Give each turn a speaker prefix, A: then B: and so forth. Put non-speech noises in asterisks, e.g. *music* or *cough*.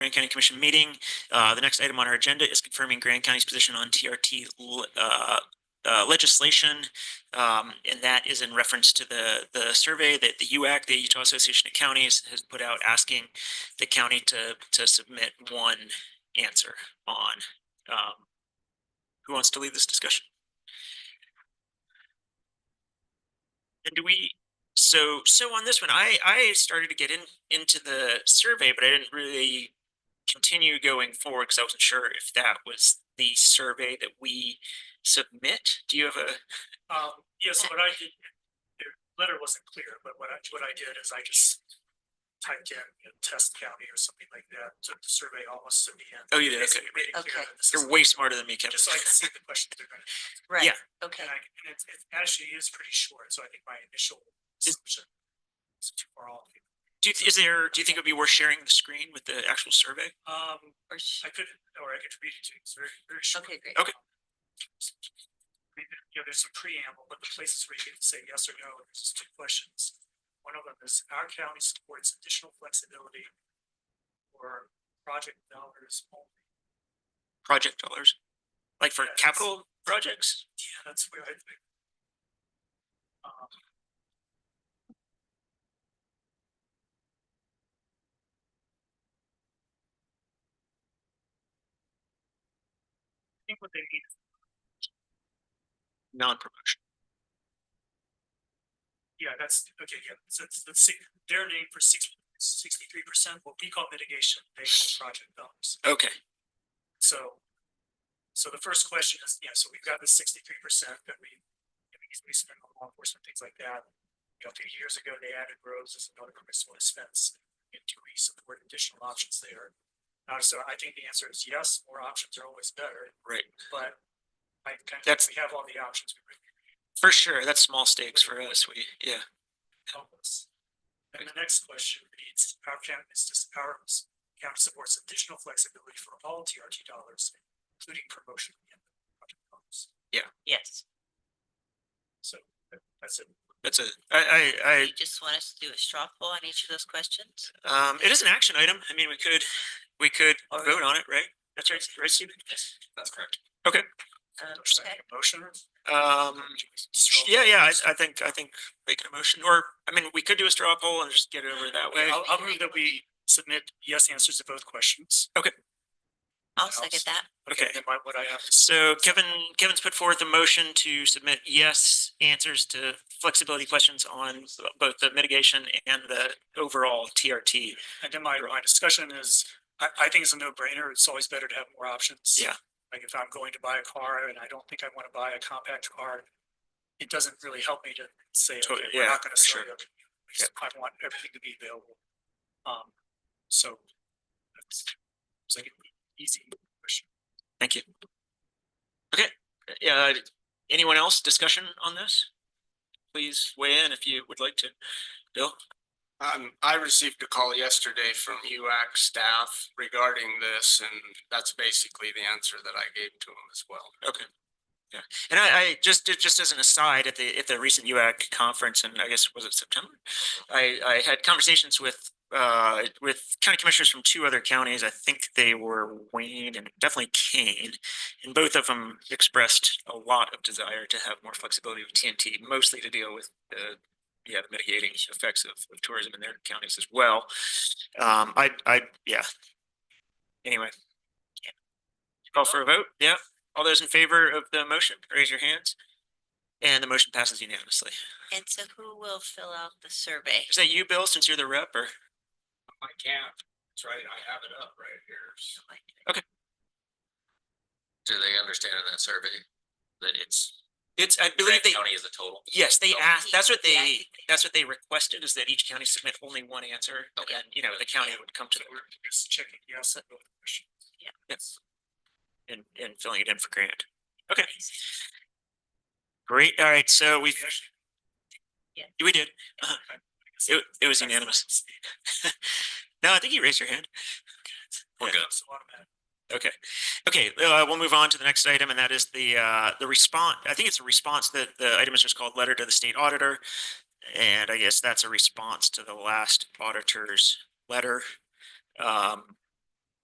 A: Grand County Commission meeting. Uh, the next item on our agenda is confirming Grand County's position on TRT l- uh, uh, legislation. Um, and that is in reference to the, the survey that the UAC, the Utah Association of Counties, has put out asking the county to, to submit one answer on. Um, who wants to lead this discussion? And do we, so, so on this one, I, I started to get in, into the survey, but I didn't really continue going forward because I wasn't sure if that was the survey that we submit. Do you have a?
B: Um, yeah, so what I did, the letter wasn't clear, but what I, what I did is I just typed in, you know, test county or something like that, took the survey almost to the end.
A: Oh, you did, okay.
B: Basically made it clear
C: Okay.
B: that this is-
A: You're way smarter than me, Kevin.
B: Just so I can see the questions they're gonna,
C: Right,
A: Yeah.
C: okay,
B: and I, and it's, it actually is pretty short, so I think my initial assumption is too far off.
A: Do you, is there, do you think it'd be worth sharing the screen with the actual survey?
B: Um,
C: or, sh-
B: I could, or I could read it to you, it's very, very short.
C: okay, great.
A: Okay.
B: I mean, there- you know, there's some preamble, but the places where you can say yes or no, there's just two questions. One of them is our county supports additional flexibility for project dollars only.
A: Project dollars? Like for
B: Yes.
A: capital projects?
B: Yeah, that's where I think. Um, I think what they mean is,
A: Non-promotion.
B: yeah, that's, okay, yeah, so it's, let's see, their name for six, sixty-three percent, what we call mitigation, they call project dollars.
A: Okay,
B: So, so the first question is, yeah, so we've got the sixty-three percent that we, that we we spend on law enforcement, things like that. You know, a few years ago, they added roads as another permissible expense, and do we support additional options there? Uh, so I think the answer is yes, more options are always better,
A: right.
B: but I kind of,
A: That's-
B: we have all the options, we really
A: For sure. That's small stakes for us. We, yeah.
B: help us. And the next question reads, our county is just, our county supports additional flexibility for all TRT dollars, including promotion and project dollars.
C: Yes,
B: So that- that's it.
A: That's a, I, I,
C: you just want us to do a straw poll on each of those questions?
A: I, um, it is an action item. I mean, we could, we could
C: Or-
A: vote on it, right? That's right, right, Stephen?
B: Oh, That's correct.
C: Um, okay,
B: Motion.
A: Um,
B: Straw
A: yeah, yeah,
B: poll.
A: I, I think, I think making a motion or, I mean, we could do a straw poll and just get it over that way.
B: I'll, I'll move that we submit yes answers to both questions.
C: I'll second that.
A: Okay.
B: Then my, what I have is
A: So Kevin, Kevin's put forth a motion to submit yes answers to flexibility questions on both the mitigation and the overall TRT.
B: And then my, my discussion is, I, I think it's a no brainer. It's always better to have more options.
A: Yeah.
B: Like if I'm going to buy a car and I don't think I want to buy a compact car, it doesn't really help me to say, okay,
A: Totally,
B: we're
A: yeah,
B: not going
A: for
B: to sell
A: sure.
B: you. I want everything to be available. Um, so that's, it's like an easy question.
A: Thank you. Okay, yeah, anyone else discussion on this? Please weigh in if you would like to. Bill?
D: Um, I received a call yesterday from UAC staff regarding this, and that's basically the answer that I gave to him as well.
A: Okay. Yeah, and I, I just, ju- just as an aside, at the, at the recent UAC conference, and I guess, was it September? I, I had conversations with, uh, with county commissioners from two other counties. I think they were Wayne and definitely Kane. And both of them expressed a lot of desire to have more flexibility with TNT, mostly to deal with the, yeah, the mitigating effects of of tourism in their counties as well. Um, I, I, yeah. Anyway. Call for a vote, yeah. All those in favor of the motion, raise your hands. And the motion passes unanimously.
C: And so who will fill out the survey?
A: Is that you, Bill, since you're the rep or?
D: I can't, that's right, I have it up right here.
E: Do they understand in that survey that it's
A: It's, I believe
E: Grant
A: they,
E: County is a total?
A: yes, they
E: Oh,
A: asked, that's what
C: yeah, I
A: they,
C: think they-
A: that's what they requested is that each county submit only one answer.
E: Okay.
A: And, you know, the county would come to
B: So we're just checking yes on both questions.
A: the, and, and filling it in for Grant. Okay. Great, all right, so we,
B: We actually-
A: we did, Uh-huh.
B: I guess-
A: it, it was unanimous. *laughs* No, I think you raised your hand.
E: We're good.
B: It's automatic.
A: Okay, okay, uh, we'll move on to the next item, and that is the, uh, the response, I think it's a response that the item is just called Letter to the State Auditor. And I guess that's a response to the last auditor's letter. Um,